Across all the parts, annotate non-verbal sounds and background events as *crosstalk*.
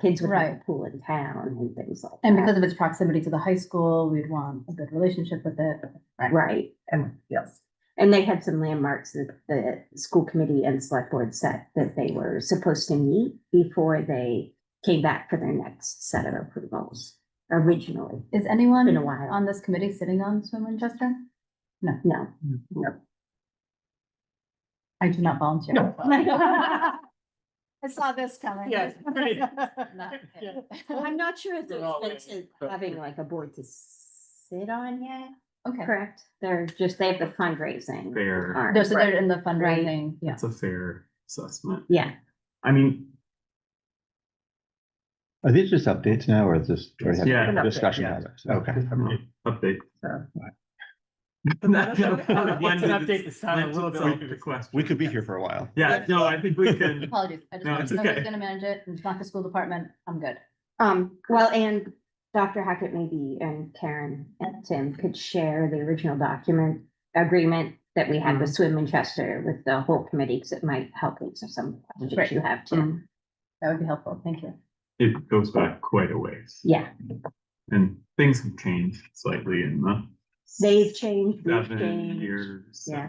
kids would have a Right. pool in town and things like And that. because of its proximity to the high school, we'd want a good relationship with it. Right, And yes, and they had some landmarks that the school committee and select board set that they were supposed to meet before they came back for their next set of approvals originally. Is Been a anyone while, on this committee sitting on Swim Winchester? Mm-hmm. no. I do not volunteer. No. *laughs* I saw this coming. Yes, *laughs* right. Yeah. I'm not sure if They're not there's sense but- of having like a board to sit on yet, Okay, correct? They're just, they have the fundraising. fair, arm. They're- so Right. they're in the fundraising, yeah. that's a fair assessment. Yeah, I mean, Are these just updates now or is this? or Yes. have- Yeah. Discussion Yeah. items, okay. update. Sure. That- Let's- that- let's that- update the sound a that little took away bit. the question. We could be here for a while. Yeah, no, I think we *laughs* can, Apologies, I just No, want it's to know who's okay. gonna manage it, and it's not the school department, I'm good. um, well, and Dr. Hackett maybe and Karen and Tim could share the original document agreement that we Mm-hmm. had with Swim Winchester with the whole committee, because it might help answer some Right. questions you have Mm-hmm. too. That would be helpful, thank you. it goes back quite a ways Yeah, and things have changed slightly in the they've changed, we've seven changed. years. Yeah.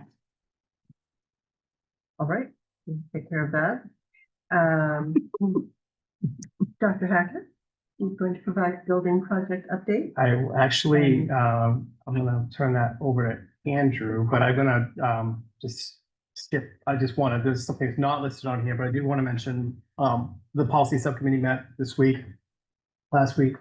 all right, we'll take care of that. Um, *laughs* Dr. Hackett, you going to provide building project *laughs* update? I will actually, um, I'm gonna turn that over to Andrew, but I'm gonna, um, just skip, I just wanted, there's something that's not listed on here, but I do want to mention, um, the policy subcommittee met this week, last week.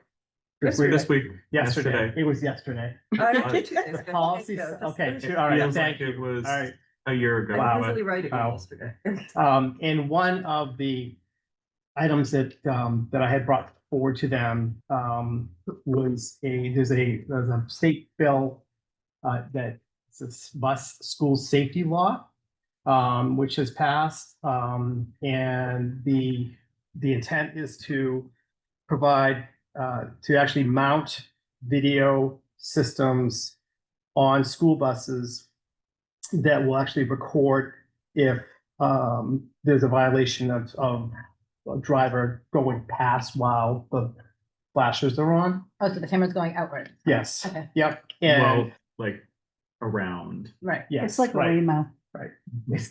this week, This week, Yesterday, yesterday. it was yesterday. The policy, sub- okay, two- all right, Feels thank like you. it was All right, a year ago. Wow. but- right Wow. yesterday. um, and one of the items that, um, that I had brought forward to them, um, was a, there's a, there's a state bill uh, that it's this bus school safety law, um, which has passed, um, and the, the intent is to provide, uh, to actually mount video systems on school buses that will actually record if um, there's a violation of, of a driver going past while the flashers are on. Oh, so the camera's going outward, Yes, okay, yep, and, Well, like around. right. yes. right, Waymo. It's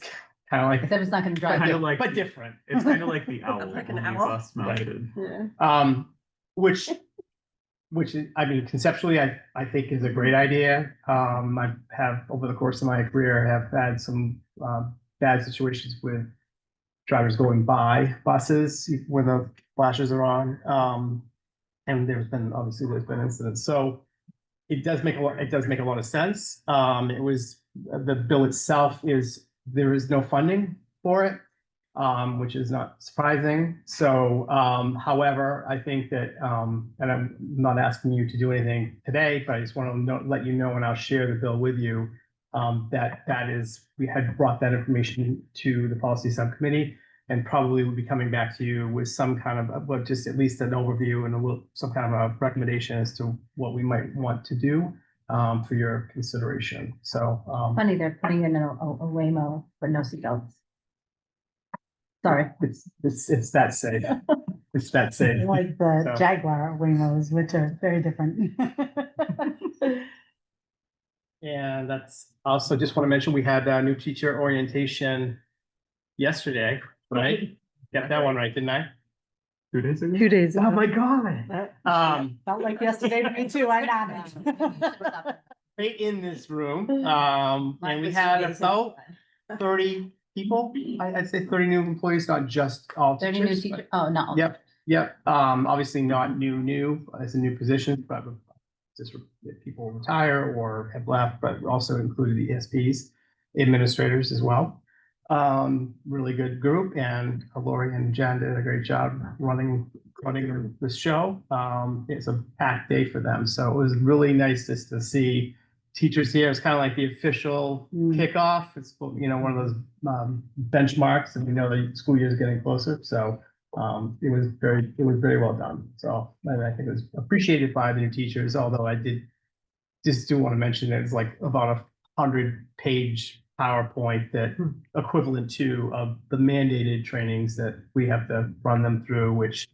kind of like Except it's not gonna drive Kind you. of like, but the- different. it's kind of like the owl. Like an only owl? bus mounted. Yeah. Um, which, which is, I mean, conceptually, I, I think is a great idea. Um, I have, over the course of my career, have had some, um, bad situations with drivers going by buses when the flashes are on. Um, and there's been, obviously, there's been incidents. So it does make a lot, it does make a lot of sense. Um, it was, the bill itself is, there is no funding for it um, which is not surprising. So, um, however, I think that, um, and I'm not asking you to do anything today, but I just want to know, let you know, and I'll share the bill with you. Um, that that is, we had brought that information to the policy subcommittee, and probably will be coming back to you with some kind of, well, just at least an overview and a little, some kind of a recommendation as to what we might want to do um, for your consideration. So, um, Funny, they're putting in a, a a Waymo, but no seatbelts. Sorry. *laughs* it's it's it's that safe. It's that safe. *laughs* Like So- the Jaguar Wemos, which are very different. *laughs* And that's also just want to mention, we had a new teacher orientation yesterday, right? Got that one right, didn't I? Two days ago? Two days. Oh my God. Um, Felt like yesterday for me too, I nodded. *laughs* right in *laughs* this room, um, and we had about thirty people. I, I'd say thirty new employees, not just all Thirty new teachers. teacher, oh, no. Yep. Yep, um, obviously not new, new, as a new position, but just re- if people retire or have left, but also included the ESPs, administrators as well. Um, really good group and Lori and Jen did a great job running, running the show. Um, it's a packed day for them, so it was really nice just to see teachers here. It's kind of like the official Mm. kickoff. It's, you know, one of those, um, benchmarks and we know the school year is getting closer, so um, it was very, it was very well done. So, and I think it was appreciated by the new teachers, although I did just do want to mention that it's like about a hundred page PowerPoint that uh, equivalent to of the mandated trainings that we have to run them through, which